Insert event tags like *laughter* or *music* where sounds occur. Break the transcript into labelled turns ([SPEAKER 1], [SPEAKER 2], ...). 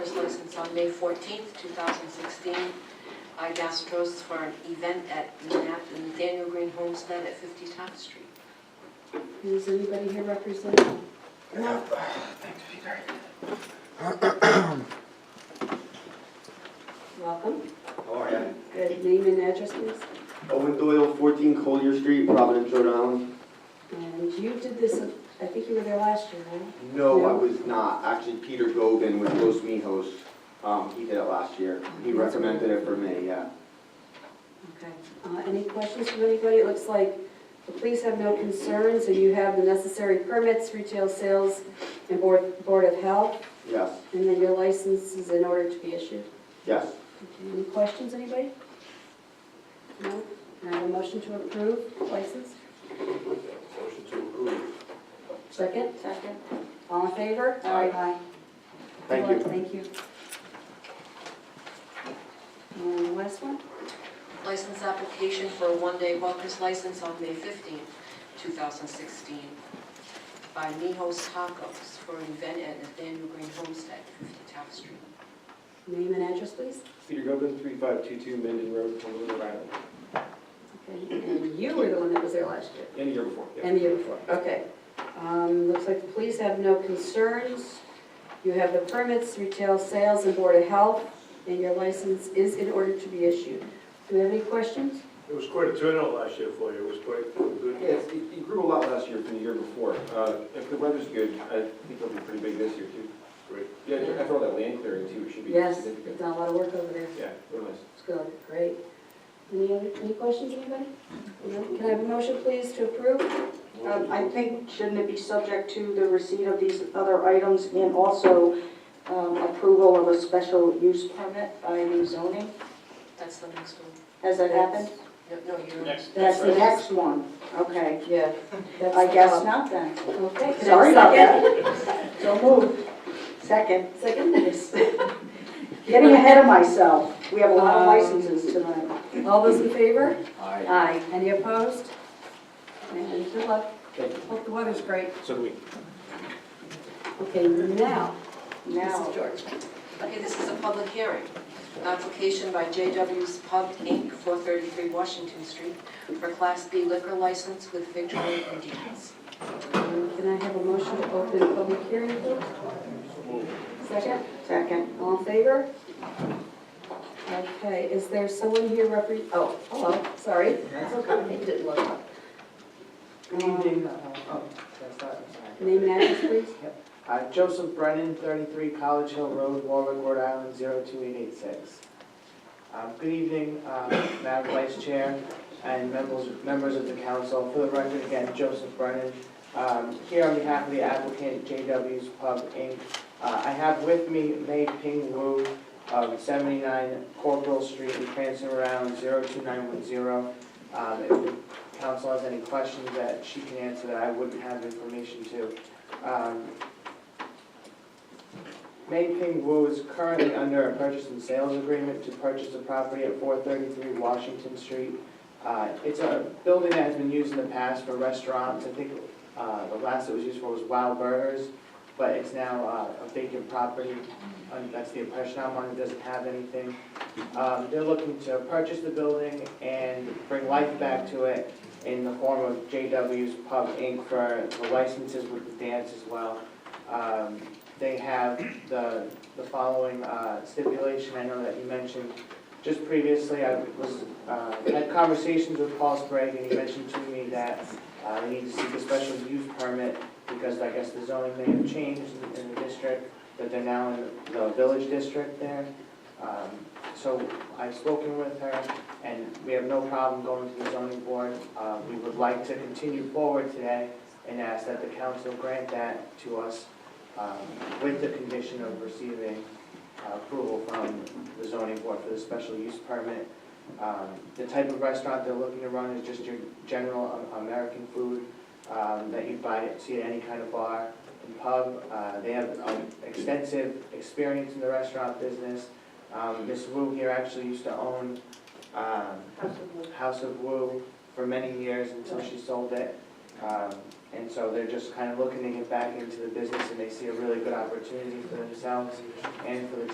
[SPEAKER 1] license on May 14th, 2016, iGastros for an event at Nathaniel Green Homestead at 50 Top Street.
[SPEAKER 2] Is anybody here representing? No. Welcome.
[SPEAKER 3] All right.
[SPEAKER 2] Good name and address, please.
[SPEAKER 3] Owen Doyle, 14 Collier Street, Providence, Rhode Island.
[SPEAKER 2] And you did this, I think you were there last year, right?
[SPEAKER 3] No, I
[SPEAKER 2] No.
[SPEAKER 3] was not. Actually, Peter Gobin with Los Mijos, um, he did it last year. He recommended it for me, yeah.
[SPEAKER 2] Okay. Uh, Any questions from anybody? It looks like the police have no concerns, and you have the necessary permits, retail sales, and Board Board of Health,
[SPEAKER 3] Yes,
[SPEAKER 2] and then your license is in order to be issued.
[SPEAKER 3] yes.
[SPEAKER 2] Okay, Any questions, anybody? No? Can I have a motion to approve license?
[SPEAKER 3] Motion to approve.
[SPEAKER 2] Second?
[SPEAKER 1] Second.
[SPEAKER 2] All in favor?
[SPEAKER 3] Aye. Thank you.
[SPEAKER 2] Thank you. And the last one?
[SPEAKER 1] License application for a one-day Walker's license on May 15th, 2016, by Nijos Tacos for an event at Nathaniel Green Homestead, 50 Top Street.
[SPEAKER 2] Name and address, please.
[SPEAKER 4] Peter Gobin, 3522 Minden Road, Honolulu, Rhode Island.
[SPEAKER 2] Okay, and you were the one that was there last year
[SPEAKER 4] And the year before, yeah.
[SPEAKER 2] and the year before, okay. Um, Looks like the police have no concerns. You have the permits, retail sales, and Board of Health, and your license is in order to be issued. Do we have any questions?
[SPEAKER 5] It was quite a turnout last year for you, it was quite
[SPEAKER 4] Yeah,
[SPEAKER 5] good.
[SPEAKER 4] it's- it it grew a lot last year from the year before. Uh, If the weather's good, I think it'll be pretty big this year too.
[SPEAKER 5] Great.
[SPEAKER 4] Yeah, after all that land clearing too, it should be
[SPEAKER 2] Yes, you've
[SPEAKER 4] significant.
[SPEAKER 2] done a lot of work over there.
[SPEAKER 4] Yeah, real nice.
[SPEAKER 2] It's good, great. Any other, any questions, anybody? No? Can I have a motion, please, to approve?
[SPEAKER 6] Um, I think, shouldn't it be subject to the receipt of these other items and also um, approval of a special use permit by the zoning?
[SPEAKER 1] That's the next one.
[SPEAKER 6] Has that happened?
[SPEAKER 1] No, no, you're...
[SPEAKER 6] That's the next one. Okay,
[SPEAKER 2] Yeah. that's-
[SPEAKER 6] I guess not then.
[SPEAKER 2] Okay. Uh, can I have a
[SPEAKER 6] Sorry about
[SPEAKER 2] second?
[SPEAKER 6] that. So moved. Second,
[SPEAKER 2] Second?
[SPEAKER 6] *laughs* getting ahead of myself. We have a lot of
[SPEAKER 2] Um,
[SPEAKER 6] licenses tonight.
[SPEAKER 2] All those in favor?
[SPEAKER 4] Aye.
[SPEAKER 2] Aye. Any opposed? And good luck.
[SPEAKER 4] Thank you.
[SPEAKER 2] Hope the weather's great.
[SPEAKER 4] So do we.
[SPEAKER 2] Okay, now,
[SPEAKER 6] Now,
[SPEAKER 2] Mrs. George.
[SPEAKER 1] Okay, this is a public hearing. Application by JW's Pub, Inc., 433 Washington Street, for Class B liquor license with victual ingredients.
[SPEAKER 2] Um, Can I have a motion to open the public hearing, please? Second?
[SPEAKER 6] second,
[SPEAKER 2] All in favor? Okay, is there someone here repre, oh, hello, sorry. That's okay. It didn't look up.
[SPEAKER 7] Good evening, uh, oh, that's not, I'm sorry.
[SPEAKER 2] Name and address, please.
[SPEAKER 7] Uh, Joseph Brennan, 33 College Hill Road, Warwick, Rhode Island, 02886. Um, Good evening, um, Madam Vice Chair and members members of the council. For the record, again, Joseph Brennan, um, here on behalf of the applicant, JW's Pub, Inc. Uh, I have with me Mei Ping Wu of 79 Corporal Street in Cranston, Rhode Island, 02910. Um, If the council has any questions that she can answer that I wouldn't have information to. Um, Mei Ping Wu is currently under a purchase and sales agreement to purchase the property at 433 Washington Street. Uh, It's a building that has been used in the past for restaurants. I think uh, the last it was used for was Wild Burgers, but it's now uh, a vacant property. Um, That's the impression I'm under, doesn't have anything. Um, They're looking to purchase the building and bring life back to it in the form of JW's Pub Inc. for the licenses with the dance as well. Um, They have the, the following uh, stipulation, I know that you mentioned just previously, I was, uh, had conversations with Paul Sprague, and he mentioned to me that uh, they need to seek a special use permit, because I guess the zoning may have changed in- in the district, that they're now in the village district there. Um, So I've spoken with her, and we have no problem going to the zoning board. Uh, We would like to continue forward today and ask that the council grant that to us um, with the condition of receiving uh, approval from the zoning board for the special use permit. Um, The type of restaurant they're looking to run is just your general um, American food um, that you buy, see at any kind of bar and pub. Uh, They have um, extensive experience in the restaurant business. Um, Ms. Wu here actually used to own um, House of Wu for many years until she sold it. Um, And so they're just kind of looking to get back into the business and they see a really good opportunity for themselves and for the